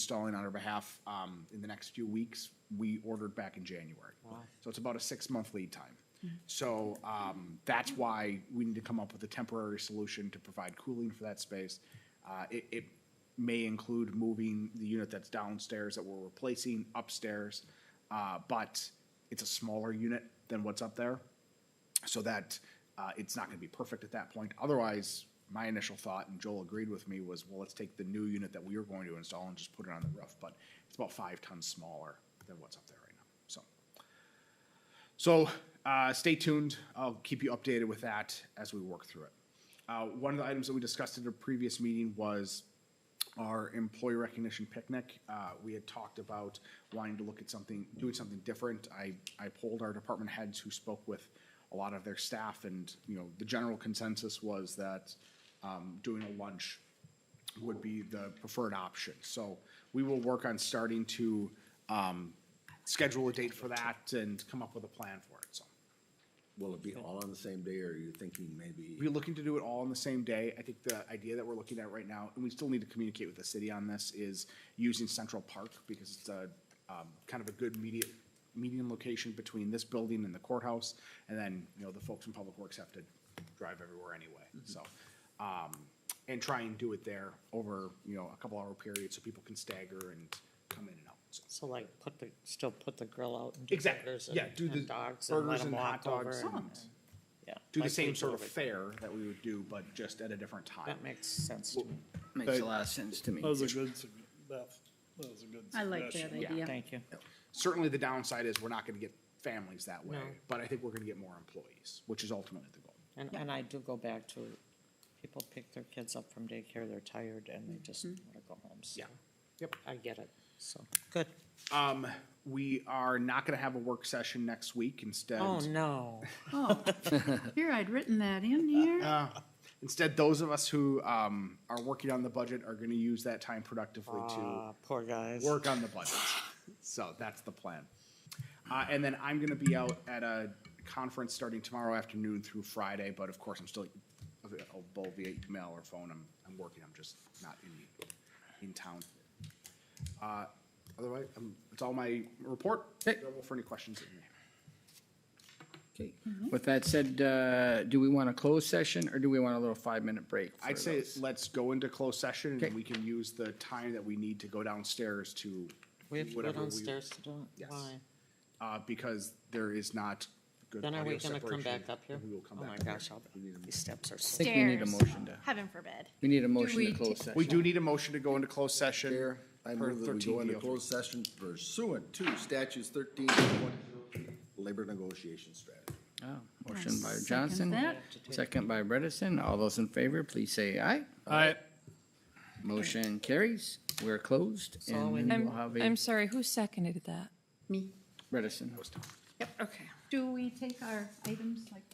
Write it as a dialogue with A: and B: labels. A: installing on our behalf um, in the next few weeks. We ordered back in January. So it's about a six-month lead time. So um, that's why we need to come up with a temporary solution to provide cooling for that space. Uh, It, it may include moving the unit that's downstairs that we're replacing upstairs, uh, but it's a smaller unit than what's up there so that uh, it's not going to be perfect at that point. Otherwise, my initial thought, and Joel agreed with me, was well, let's take the new unit that we are going to install and just put it on the roof. But it's about five tons smaller than what's up there right now. So, so uh, stay tuned. I'll keep you updated with that as we work through it. Uh, one of the items that we discussed at a previous meeting was our employee recognition picnic. Uh, we had talked about wanting to look at something, doing something different. I, I polled our department heads who spoke with a lot of their staff and, you know, the general consensus was that, um, doing a lunch would be the preferred option. So we will work on starting to, um, schedule a date for that and come up with a plan for it, so.
B: Will it be all on the same day, or are you thinking maybe?
A: We're looking to do it all on the same day. I think the idea that we're looking at right now, and we still need to communicate with the city on this, is using Central Park because it's a, um, kind of a good media, median location between this building and the courthouse. And then, you know, the folks in Public Works have to drive everywhere anyway,
C: Mm-hmm.
A: so. Um, and try and do it there over, you know, a couple hour period so people can stagger and come in and out, so.
C: So like, put the, still put the grill out and do
A: Exactly,
C: burgers
A: yeah,
C: and-
A: do the
C: and dogs and let
A: burgers
C: them
A: and hot
C: walk over
A: dogs
C: and-
A: and
C: yeah.
A: do the
C: like
A: same
C: we
A: sort
C: do
A: of
C: over-
A: fair that we would do, but just at a different time.
C: That makes sense to me.
D: Makes a lot of sense to me.
E: That was a good, sug- Beth, that was a good
F: I like that
E: suggestion.
F: idea.
C: Thank you.
A: certainly the downside is we're not gonna get families that way,
C: No.
A: but I think we're gonna get more employees, which is ultimately the goal.
C: And, and I do go back to, people pick their kids up from daycare, they're tired and they just wanna go home, so.
A: Yeah. Yep.
C: I get it, so, good.
A: Um, we are not gonna have a work session next week, instead,
C: Oh, no.
F: Oh, here, I'd written that in here.
A: uh, instead, those of us who, um, are working on the budget are gonna use that time productively to
C: Ah, poor guys.
A: work on the budget. So that's the plan. Uh, and then I'm gonna be out at a conference starting tomorrow afternoon through Friday, but of course, I'm still available via email or phone. I'm, I'm working, I'm just not in, in town. Uh, otherwise, um, it's all my report. Available for any questions that you may have.
D: Okay. With that said, uh, do we want a closed session or do we want a little five-minute break? for
A: I'd say
D: those?
A: let's go into closed session and
D: Okay.
A: we can use the time that we need to go downstairs to
C: We have to go
A: whatever we-
C: downstairs to do it,
A: Yes.
C: why?
A: Uh, because there is not good
C: Then are
A: audio
C: we gonna come
A: separation,
C: back up here?
A: and We will come
C: Oh
A: back.
C: my
A: up here.
C: gosh, I'll- these steps are
D: I
C: so.
D: think we need a
G: Stairs.
D: motion to,
G: Heaven forbid.
D: we need a motion
F: we
D: to close
F: ta-
D: session.
A: We do need a motion to go into closed session.
B: Chair,
A: per
B: I
A: E
B: move that we go
A: 13
B: into
A: DO3.
B: closed session pursuant to statutes thirteen and one, labor negotiation strategy.
D: Oh,
F: I
D: Motion by
F: second
D: Johnson,
F: that.
D: second by Bredesen. All those in favor, please say aye.
E: All right.
D: Motion carries. We're closed and
C: we-
D: then
H: I'm,
D: we'll have a
H: I'm sorry, who seconded that?
F: Me.
D: Bredesen.
F: Do we take our items like